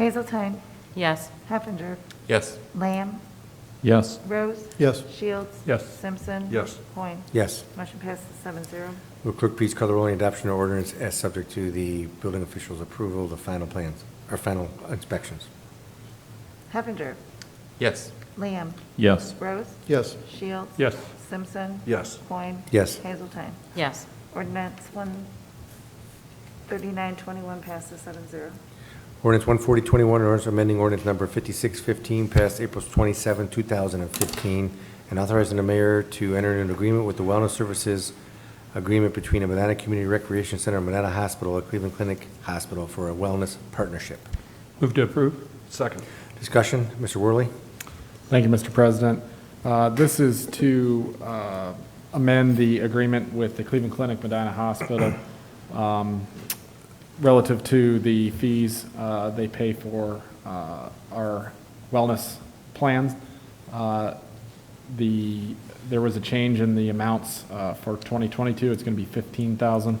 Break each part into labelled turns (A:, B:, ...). A: Hazelton,
B: Yes.
A: Heffinger,
C: Yes.
A: Lamb,
D: Yes.
A: Rose.
E: Yes.
A: Shields.
D: Yes.
A: Simpson.
C: Yes.
A: Coin.
E: Yes.
A: Motion passes seven zero.
E: Will clerk please call the roll on adoption of ordinance as subject to the building official's approval of the final plans, or final inspections?
A: Heffinger,
C: Yes.
A: Lamb,
D: Yes.
A: Rose.
E: Yes.
A: Shields.
D: Yes.
A: Simpson.
C: Yes.
A: Coin.
E: Yes.
A: Hazelton.
B: Yes.
A: Ordinance one thirty-nine twenty-one passes seven zero.
E: Ordinance 14021, an ordinance amending ordinance number 5615, passed April 27, 2015, and authorizing the mayor to enter into an agreement with the Wellness Services Agreement between the Medina Community Recreation Center, Medina Hospital, and Cleveland Clinic Hospital for a wellness partnership.
D: Move to approve?
C: Second.
E: Discussion, Mr. Worley?
F: Thank you, Mr. President. Uh, This is to uh, amend the agreement with the Cleveland Clinic Medina Hospital um, relative to the fees uh, they pay for uh, our wellness plans. Uh, The, there was a change in the amounts uh, for 2022, it's going to be 15,000.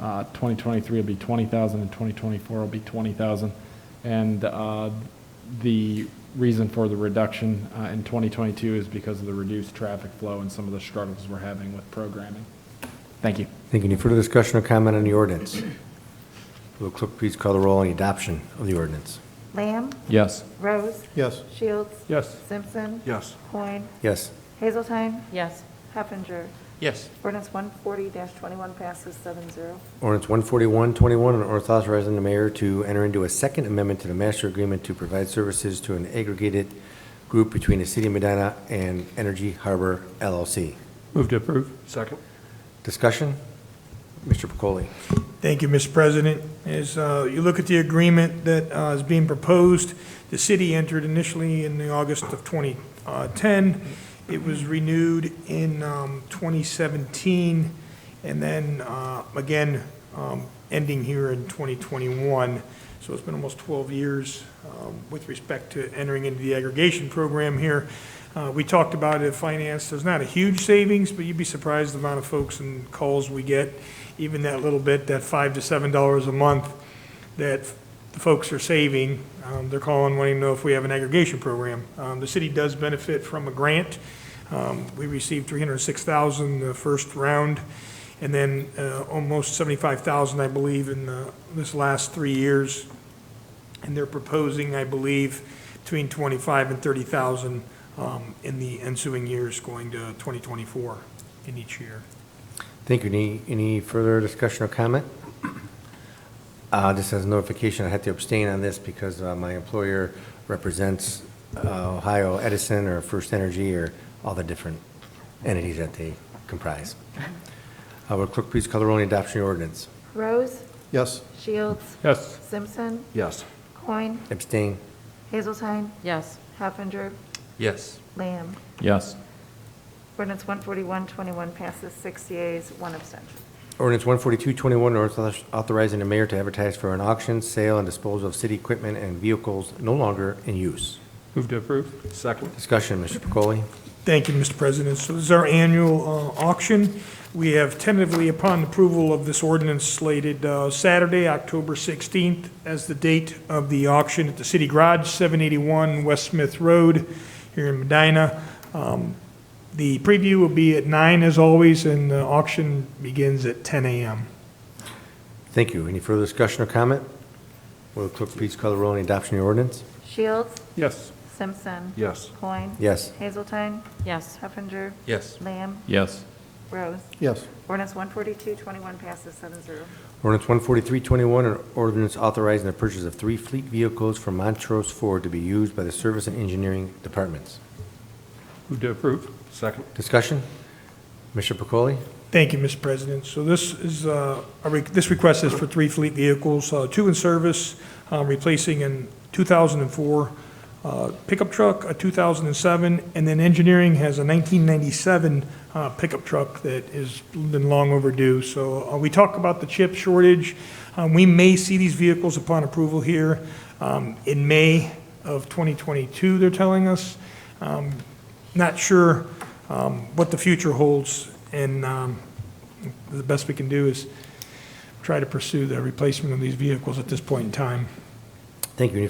F: Uh, 2023 will be 20,000, and 2024 will be 20,000. And uh, the reason for the reduction uh, in 2022 is because of the reduced traffic flow and some of the struggles we're having with programming. Thank you.
E: Thank you. Any further discussion or comment on the ordinance? Will clerk please call the roll on the adoption of the ordinance?
A: Lamb,
D: Yes.
A: Rose.
E: Yes.
A: Shields.
D: Yes.
A: Simpson.
C: Yes.
A: Coin.
E: Yes.
A: Hazelton,
B: Yes.
A: Heffinger.
C: Yes.
A: Ordinance one forty twenty-one passes seven zero.
E: Ordinance 14121, an ordinance authorizing the mayor to enter into a second amendment to the master agreement to provide services to an aggregated group between the city of Medina and Energy Harbor LLC.
D: Move to approve?
C: Second.
E: Discussion? Mr. Pacoli?
G: Thank you, Mr. President. As uh, you look at the agreement that uh, is being proposed, the city entered initially in the August of 2010. It was renewed in um, 2017, and then uh, again, um, ending here in 2021. So it's been almost 12 years um, with respect to entering into the aggregation program here. Uh, We talked about it in finance, there's not a huge savings, but you'd be surprised the amount of folks and calls we get, even that little bit, that five to seven dollars a month that the folks are saving. Um, They're calling wanting to know if we have an aggregation program. Um, The city does benefit from a grant. Um, We received 306,000 the first round, and then uh, almost 75,000, I believe, in the- this last three years. And they're proposing, I believe, between 25 and 30,000 um, in the ensuing years, going to 2024 in each year.
E: Thank you. Any, any further discussion or comment? Uh, Just as notification, I had to abstain on this because uh, my employer represents uh, Ohio Edison or First Energy or all the different entities that they comprise. Uh, Will clerk please call the roll on the adoption of the ordinance?
A: Rose,
E: Yes.
A: Shields,
D: Yes.
A: Simpson,
C: Yes.
A: Coin,
E: Abstain?
A: Hazelton,
B: Yes.
A: Heffinger,
C: Yes.
A: Lamb.
D: Yes.
A: Ordinance one forty-one twenty-one passes six yeas, one abstention.
E: Ordinance 14221, ordinance authorizing the mayor to advertise for an auction, sale, and disposal of city equipment and vehicles no longer in use.
D: Move to approve?
C: Second.
E: Discussion, Mr. Pacoli?
G: Thank you, Mr. President. So this is our annual uh, auction. We have tentatively, upon approval of this ordinance slated uh, Saturday, October 16th, as the date of the auction at the City Garage, 781 West Smith Road, here in Medina. Um, The preview will be at 9 as always, and the auction begins at 10 a.m.
E: Thank you. Any further discussion or comment? Will the clerk please call the roll on the adoption of the ordinance?
A: Shields,
D: Yes.
A: Simpson.
C: Yes.
A: Coin.
E: Yes.
A: Hazelton,
B: Yes.
A: Heffinger,
C: Yes.
A: Lamb,
D: Yes.
A: Rose.
E: Yes.
A: Ordinance one forty-two twenty-one passes seven zero.
E: Ordinance 14321, an ordinance authorizing the purchase of three fleet vehicles from Montrose Ford to be used by the Service and Engineering Departments.
D: Move to approve?
C: Second.
E: Discussion? Mr. Pacoli?
G: Thank you, Mr. President. So this is, uh, a re- this request is for three fleet vehicles, uh, two in service, uh, replacing in 2004 uh, pickup truck, a 2007, and then engineering has a 1997 uh, pickup truck that has been long overdue. So uh, we talk about the chip shortage. Um, We may see these vehicles upon approval here um, in May of 2022, they're telling us. Um, Not sure um, what the future holds, and um, the best we can do is try to pursue the replacement of these vehicles at this point in time.
E: Thank you. Any